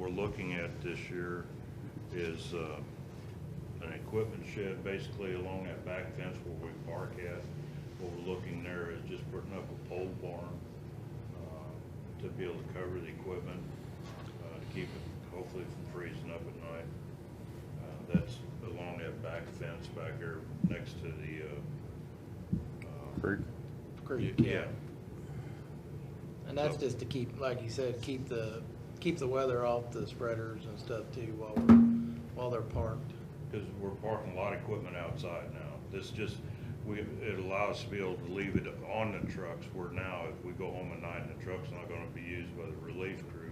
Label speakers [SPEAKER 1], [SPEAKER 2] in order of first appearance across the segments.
[SPEAKER 1] we're looking at this year is uh, an equipment shed, basically along that back fence where we park at. What we're looking there is just putting up a pole barn uh, to be able to cover the equipment, uh, to keep it hopefully from freezing up at night. Uh, That's along that back fence back here next to the, uh,
[SPEAKER 2] Creek.
[SPEAKER 3] Creek,
[SPEAKER 1] yeah,
[SPEAKER 3] yeah. And that's just to keep, like you said, keep the, keep the weather off the spreaders and stuff too while we're, while they're parked.
[SPEAKER 1] because we're parking a lot of equipment outside now. This just, we, it allows us to be able to leave it on the trucks, where now if we go home at night and the truck's not gonna be used by the relief crew,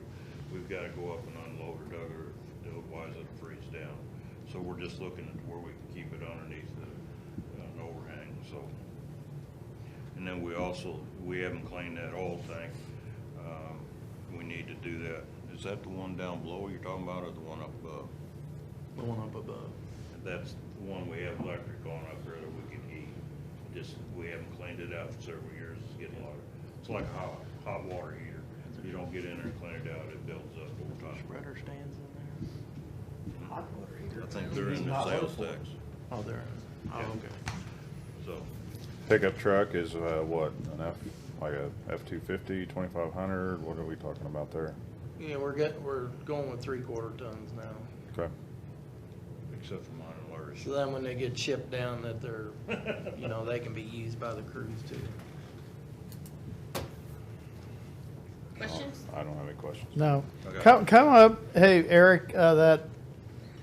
[SPEAKER 1] we've gotta go up and unload it, other- otherwise it'll freeze down. So we're just looking at where we can keep it underneath the, uh, an overhang, so. And then we also, we haven't cleaned that oil tank. Um, We need to do that. Is that the one down below you're talking about, or the one up above?
[SPEAKER 3] The one up above.
[SPEAKER 1] That's the one we have electric on up there that we can heat. Just, we haven't cleaned it out for several years, it's getting hotter. It's like a hot, hot water heater. If you don't get in there and clean it out, it builds up over time.
[SPEAKER 3] Spreader stands in there?
[SPEAKER 4] Hot water heater.
[SPEAKER 1] I think they're in the sales tax,
[SPEAKER 3] Oh, there.
[SPEAKER 1] Yeah.
[SPEAKER 3] Oh, okay.
[SPEAKER 1] so.
[SPEAKER 2] Pickup truck is, uh, what, an F, like a F-250, 2500, what are we talking about there?
[SPEAKER 3] Yeah, we're getting, we're going with three quarter tons now.
[SPEAKER 2] Okay,
[SPEAKER 1] Except for mine and Larry's.
[SPEAKER 3] So then when they get shipped down that they're, you know, they can be used by the crews too.
[SPEAKER 5] Questions?
[SPEAKER 2] I don't have any questions.
[SPEAKER 6] No.
[SPEAKER 1] Okay.
[SPEAKER 6] Come, come up, hey, Eric, uh, that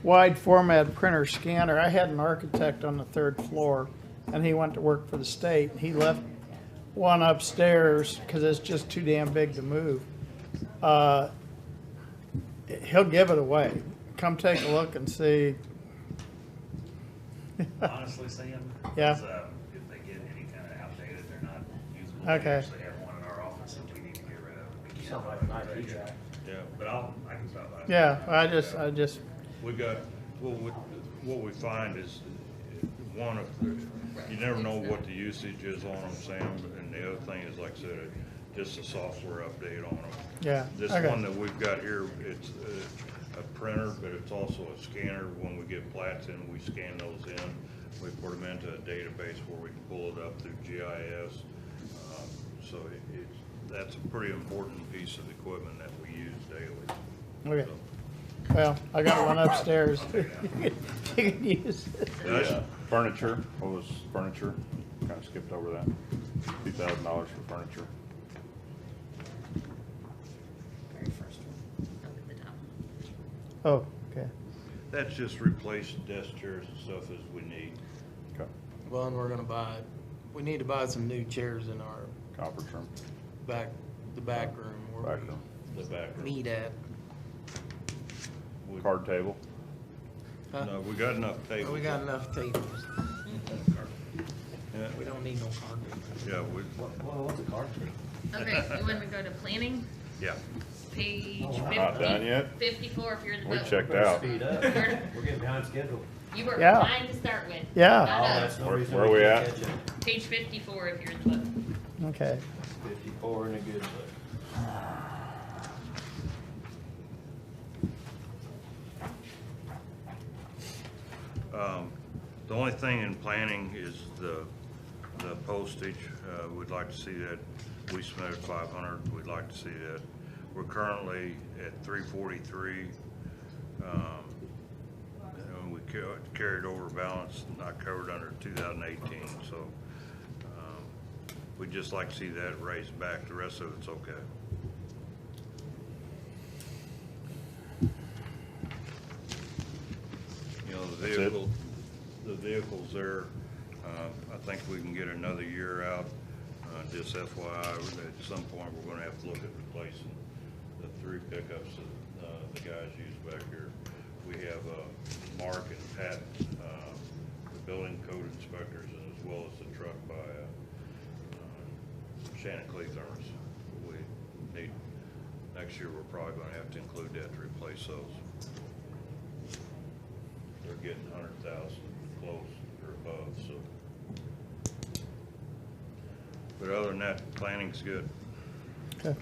[SPEAKER 6] wide format printer scanner, I had an architect on the third floor, and he went to work for the state, and he left one upstairs, because it's just too damn big to move. Uh, He'll give it away. Come take a look and see.
[SPEAKER 7] honestly, Sam.
[SPEAKER 6] Yeah.
[SPEAKER 7] is, um, If they get any kind of outdated, they're not usable.
[SPEAKER 6] Okay.
[SPEAKER 7] We actually have one in our office that we need to get rid of. We can't
[SPEAKER 4] Sound like
[SPEAKER 7] afford
[SPEAKER 4] an
[SPEAKER 7] to
[SPEAKER 4] IT
[SPEAKER 7] take it.
[SPEAKER 4] guy.
[SPEAKER 1] Yeah.
[SPEAKER 7] But I'll, I can stop by.
[SPEAKER 6] Yeah, I just, I just,
[SPEAKER 1] We got, well, what, what we find is, one of, the- you never know what the usage is on them, Sam, and the other thing is, like I said, just a software update on them.
[SPEAKER 6] Yeah,
[SPEAKER 1] This
[SPEAKER 6] okay.
[SPEAKER 1] one that we've got here, it's a, a printer, but it's also a scanner. When we get plats in, we scan those in. We put them into a database where we can pull it up through GIS. Um, So it, it's, that's a pretty important piece of equipment that we use daily.
[SPEAKER 6] okay. Well, I got one upstairs. You can use it.
[SPEAKER 1] That's-
[SPEAKER 2] Yeah. Furniture, what was furniture? Kinda skipped over that. Two thousand dollars for furniture.
[SPEAKER 5] Very first one, up at the top.
[SPEAKER 6] Oh, okay.
[SPEAKER 1] That's just replaced desk chairs and stuff as we need.
[SPEAKER 2] Okay,
[SPEAKER 3] Well, and we're gonna buy, we need to buy some new chairs in our
[SPEAKER 2] conference room,
[SPEAKER 3] back, the back room where
[SPEAKER 2] back room,
[SPEAKER 1] The back room.
[SPEAKER 3] we meet at.
[SPEAKER 1] We-
[SPEAKER 2] card table.
[SPEAKER 3] Huh?
[SPEAKER 1] No, we got enough tables.
[SPEAKER 3] Oh, We got enough tables.
[SPEAKER 1] Yeah,
[SPEAKER 3] We don't need no carpet.
[SPEAKER 1] Yeah, we,
[SPEAKER 4] What, what- what's a car tree?
[SPEAKER 5] Okay, you want me to go to planning?
[SPEAKER 1] yeah.
[SPEAKER 5] Page
[SPEAKER 2] We're not done
[SPEAKER 5] fifty,
[SPEAKER 2] yet.
[SPEAKER 5] fifty-four if you're the.
[SPEAKER 2] We
[SPEAKER 5] vote.
[SPEAKER 2] checked out.
[SPEAKER 4] Speed up. We're getting behind schedule.
[SPEAKER 5] You were
[SPEAKER 6] Yeah.
[SPEAKER 5] behind to start with.
[SPEAKER 6] Yeah.
[SPEAKER 5] Not
[SPEAKER 4] Oh,
[SPEAKER 5] us.
[SPEAKER 4] that's no
[SPEAKER 2] Where-
[SPEAKER 4] reason
[SPEAKER 2] where we
[SPEAKER 4] can't
[SPEAKER 2] at?
[SPEAKER 4] catch up.
[SPEAKER 5] Page fifty-four if you're the. vote.
[SPEAKER 6] Okay.
[SPEAKER 4] Fifty-four and a good look.
[SPEAKER 1] Um, The only thing in planning is the, the postage. Uh, We'd like to see that, we submitted 500, we'd like to see that. We're currently at 343. um, And we ca- carried over balance not covered under 2018, so um, we'd just like to see that raised back. The rest of it's okay. You know, the
[SPEAKER 2] That's it.
[SPEAKER 1] vehicle, the vehicle's there. Uh, I think we can get another year out. Uh, Just FYI, at some point, we're gonna have to look at replacing the three pickups that uh, the guys use back here. We have uh, Mark and Pat, uh, the building code inspectors, and as well as the truck by uh, uh, Shannon Cleathorns. We need, next year, we're probably gonna have to include that to replace those they're getting hundred thousand close or above, so. But other than that, planning's good.
[SPEAKER 6] Okay.